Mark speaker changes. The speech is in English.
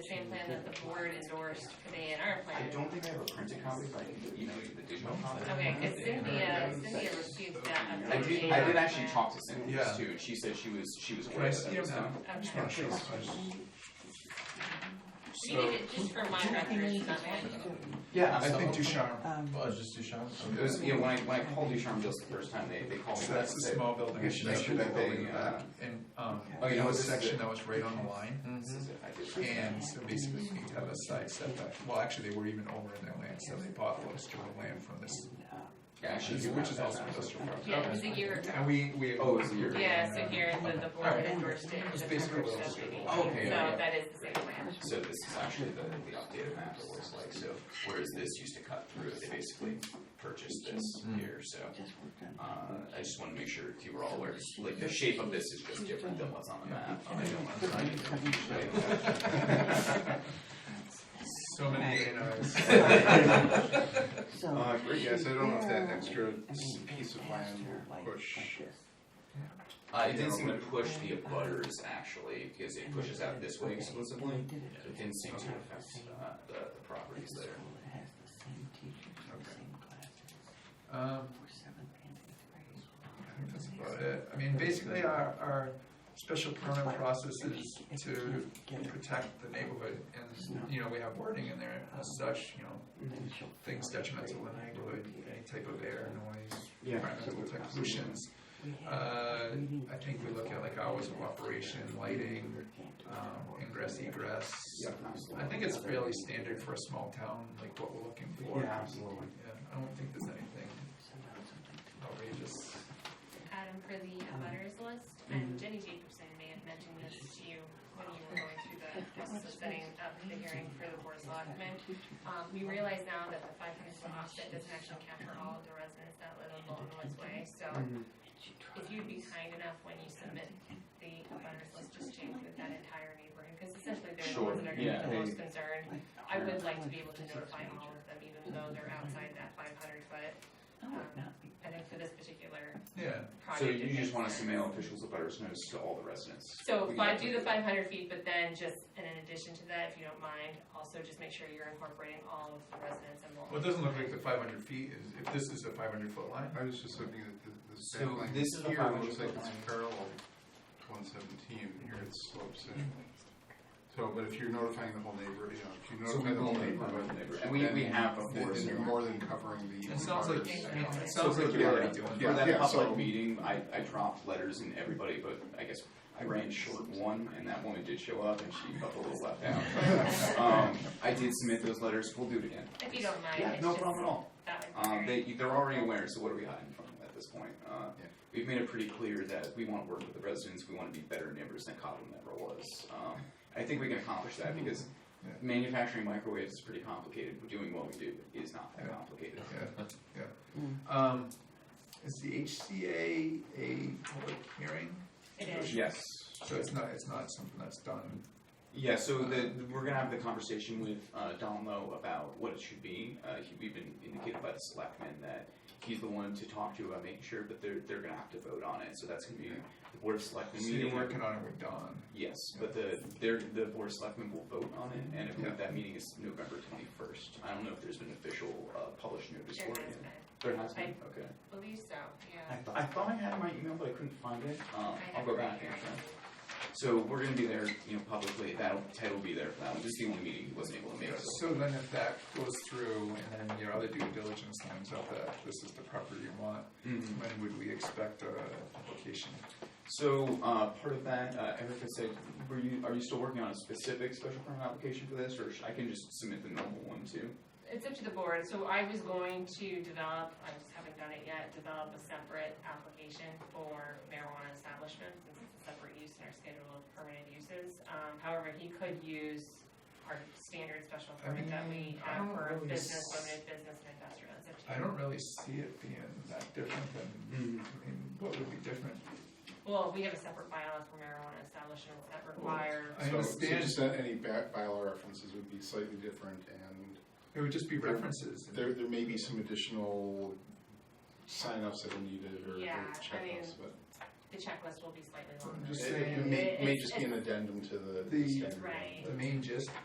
Speaker 1: same plan that the board endorsed for the A and R
Speaker 2: I
Speaker 1: plan.
Speaker 2: don't think I have a printed copy, but I can get you know the digital copy. uh,
Speaker 1: Okay, cause Cynthia, Cynthia received that.
Speaker 2: I did, I did actually talk to Cynthia
Speaker 3: Yeah.
Speaker 2: too, and she said she was, she was
Speaker 3: Can
Speaker 2: aware
Speaker 3: I
Speaker 2: that
Speaker 3: see
Speaker 2: that was
Speaker 3: them?
Speaker 2: done.
Speaker 1: Okay.
Speaker 3: Yeah, sure.
Speaker 1: She did it just for my records, not mine.
Speaker 2: Yeah,
Speaker 3: I think
Speaker 2: absolutely.
Speaker 3: Ducharme,
Speaker 4: Um,
Speaker 5: Oh, it's just Duchamp?
Speaker 2: It was, yeah, when I, when I called Ducharme Bills the first time, they, they called me.
Speaker 3: so that's the
Speaker 2: back and
Speaker 3: small building.
Speaker 2: I should make sure that they, uh,
Speaker 3: And, um,
Speaker 2: Oh, you know
Speaker 3: you know, a
Speaker 2: what, this is
Speaker 3: section
Speaker 2: it. Mm-hmm.
Speaker 3: that was right on the line.
Speaker 2: said, "This is it, I did print it."
Speaker 3: And so basically, we have a side setback. Well, actually, they were even over in their land, so they bought most of the land from this,
Speaker 2: Yeah, I should do
Speaker 3: which
Speaker 2: that.
Speaker 3: is also industrial park.
Speaker 1: Yeah, it was a year ago.
Speaker 3: And we, we.
Speaker 2: Oh, it's a year.
Speaker 1: Yeah, so here, the, the board endorsed it.
Speaker 3: It's
Speaker 1: the
Speaker 3: basically
Speaker 1: numbers that
Speaker 3: what it was.
Speaker 1: we need.
Speaker 2: Oh, okay,
Speaker 1: So
Speaker 2: okay.
Speaker 1: that is the same plan.
Speaker 2: So this is actually the, the updated map it looks like, so whereas this used to cut through, it, they basically purchased this here, so. Uh, I just wanna make sure if you were all aware, like, the shape of this is just different than what's on the map. I don't wanna try and-
Speaker 3: So many A and Rs.
Speaker 4: so.
Speaker 6: Uh, great, yes, I don't know if that
Speaker 4: Yeah.
Speaker 6: extra
Speaker 4: I mean,
Speaker 6: piece of
Speaker 4: past
Speaker 6: land
Speaker 4: your
Speaker 6: will
Speaker 4: life
Speaker 6: push.
Speaker 4: like this.
Speaker 2: Uh, it didn't seem to push the abutters actually, because it pushes out this way
Speaker 4: They
Speaker 2: exclusively.
Speaker 4: did it
Speaker 2: It didn't seem to affect, uh, the, the properties
Speaker 4: It's a
Speaker 2: there.
Speaker 4: school that has the same teachers, the same classes,
Speaker 3: Um,
Speaker 4: for seventh and eighth grade.
Speaker 3: I think that's about it. I mean, basically, our, our special permit process is to protect the neighborhood. And, you know, we have wording in there as such, you know,
Speaker 4: Then she'll
Speaker 3: things
Speaker 4: fail
Speaker 3: detrimental to the
Speaker 4: grade
Speaker 3: neighborhood,
Speaker 4: level.
Speaker 3: any type of air, noise,
Speaker 2: Yeah.
Speaker 3: environmental type pollutions.
Speaker 4: We had
Speaker 3: Uh,
Speaker 4: reading
Speaker 3: I think we look at like hours of operation, lighting,
Speaker 4: teacher can't do
Speaker 3: um, ingress, egress.
Speaker 2: Yeah, absolutely.
Speaker 3: I think it's fairly standard for a small town, like what we're looking for.
Speaker 2: Yeah, absolutely.
Speaker 3: Yeah, I don't think there's anything outrageous.
Speaker 1: Adam, for the abutters list, and Jenny Jacobson may have mentioned this to you when you were going through the process of setting up the hearing for the board's allotment. Um, we realize now that the five hundred foot offset doesn't actually capture all of the residents that live on Bolton Woods Way, so if you'd be kind enough when you submit the abutters list, just change with that entire neighborhood, because essentially they're the
Speaker 2: Sure,
Speaker 1: ones that are gonna
Speaker 2: yeah,
Speaker 1: be the most
Speaker 2: they-
Speaker 1: concerned. I would like to be able to notify all of them, even though they're outside that five hundred foot. I think for this particular
Speaker 3: Yeah,
Speaker 2: So
Speaker 1: project. it
Speaker 2: you
Speaker 1: makes
Speaker 2: just wanna
Speaker 1: sense.
Speaker 2: mail officials abutters notice to all the residents?
Speaker 1: So if
Speaker 2: We can
Speaker 1: I
Speaker 2: definitely
Speaker 1: do the five hundred feet, but then just, and in addition to that, if you don't mind, also just make sure you're incorporating all of the residents and
Speaker 3: well, it
Speaker 1: Bolton.
Speaker 3: doesn't look like the five hundred feet is, if this is a five hundred foot line.
Speaker 6: I was just hoping that the, the
Speaker 2: So
Speaker 6: sand line
Speaker 2: this is a
Speaker 6: here
Speaker 2: 500
Speaker 6: looks like
Speaker 2: foot
Speaker 6: it's
Speaker 2: line.
Speaker 6: parallel to one seventeen, here it slopes in. So, but if you're notifying the whole neighborhood, you know, if
Speaker 2: So
Speaker 6: you
Speaker 2: we
Speaker 6: notify the
Speaker 2: will
Speaker 6: whole
Speaker 2: neighborhood,
Speaker 6: neighborhood,
Speaker 2: and we, we have
Speaker 6: then
Speaker 2: before.
Speaker 6: then
Speaker 2: so-
Speaker 6: you're more than covering the.
Speaker 3: It sounds like, it sounds
Speaker 2: So
Speaker 3: like
Speaker 2: it's
Speaker 3: you're
Speaker 2: like,
Speaker 3: already doing
Speaker 2: For
Speaker 6: Yeah,
Speaker 3: that.
Speaker 2: that
Speaker 6: yeah,
Speaker 2: public
Speaker 6: so-
Speaker 2: meeting, I, I dropped letters in everybody, but I guess I ran short one, and that woman did show up, and she felt a little left out. Um, I did submit those letters, we'll do it again.
Speaker 1: If you don't mind,
Speaker 2: Yeah,
Speaker 1: it's
Speaker 2: no
Speaker 1: just,
Speaker 2: problem at all.
Speaker 1: that would
Speaker 2: Um,
Speaker 1: be
Speaker 2: they,
Speaker 1: great.
Speaker 2: they're already aware, so what are we hiding from them at this point? Uh,
Speaker 6: Yeah.
Speaker 2: we've made it pretty clear that we wanna work with the residents, we wanna be better neighbors than Cobham ever was. Um, I think we can accomplish that, because
Speaker 3: Yeah.
Speaker 2: manufacturing microwaves is pretty complicated, but doing what we do is not that complicated.
Speaker 3: Yeah, yeah. Um, is the HCA a public hearing?
Speaker 1: It is.
Speaker 2: Yes.
Speaker 3: So it's not, it's not something that's done.
Speaker 2: Yeah, so the, we're gonna have the conversation with, uh, Don Lowe about what it should be. Uh, he, we've been indicated by the selectmen that he's the one to talk to about making sure, but they're, they're gonna have to vote on it, so that's gonna be the board of selectmen
Speaker 3: So you're
Speaker 2: meeting.
Speaker 3: working on it with Don.
Speaker 2: Yes, but the, their, the board of selectmen will vote on it, and I
Speaker 3: Yeah.
Speaker 2: believe that meeting is November twenty-first. I don't know if there's been official, uh, published notice
Speaker 1: There
Speaker 2: for
Speaker 1: has
Speaker 2: it
Speaker 1: been,
Speaker 2: yet. There has been, okay.
Speaker 1: I believe so, yeah.
Speaker 2: I, th- I thought I had my email, but I couldn't find it.
Speaker 1: I
Speaker 2: Um, I'll
Speaker 1: have
Speaker 2: go
Speaker 1: it right
Speaker 2: back and
Speaker 1: here.
Speaker 2: check. So we're gonna be there, you know, publicly, that'll, Ted will be there for that one, this is the only meeting he wasn't able to make,
Speaker 3: Yeah,
Speaker 2: so.
Speaker 3: So then if that goes through and then your other due diligence lines up that this is the property you want,
Speaker 2: Mhm.
Speaker 3: when would we expect a application?
Speaker 2: So, uh, part of that, uh, Erica said, were you, are you still working on a specific special permit application for this, or sh- I can just submit the normal one too?
Speaker 1: It's up to the board, so I was going to develop, I just haven't done it yet, develop a separate application for marijuana establishments, since it's a separate use in our schedule of permitted uses. Um, however, he could use our standard special
Speaker 3: I
Speaker 1: permit that
Speaker 3: mean,
Speaker 1: we
Speaker 3: I
Speaker 1: have
Speaker 3: don't
Speaker 1: for
Speaker 3: really
Speaker 1: business,
Speaker 3: s-
Speaker 1: limited business and industrial, it's up to
Speaker 3: I
Speaker 1: you.
Speaker 3: don't really see it being that different than, I mean, what would be different?
Speaker 1: Well, we have a separate bylaw for marijuana establishments that require,
Speaker 3: I
Speaker 6: So- So
Speaker 3: understand,
Speaker 6: just that any back bylaw references would be slightly different and
Speaker 3: it would just be references.
Speaker 6: there, there may be some additional signups that are needed or or
Speaker 1: Yeah, I mean,
Speaker 6: checklists, but
Speaker 1: the checklist will be slightly
Speaker 3: I'm
Speaker 1: longer.
Speaker 3: just
Speaker 6: it- it
Speaker 3: saying,
Speaker 6: may, may
Speaker 1: It's-
Speaker 6: just be an addendum to the-
Speaker 3: The-
Speaker 6: the standard.
Speaker 1: Right.
Speaker 3: the main gist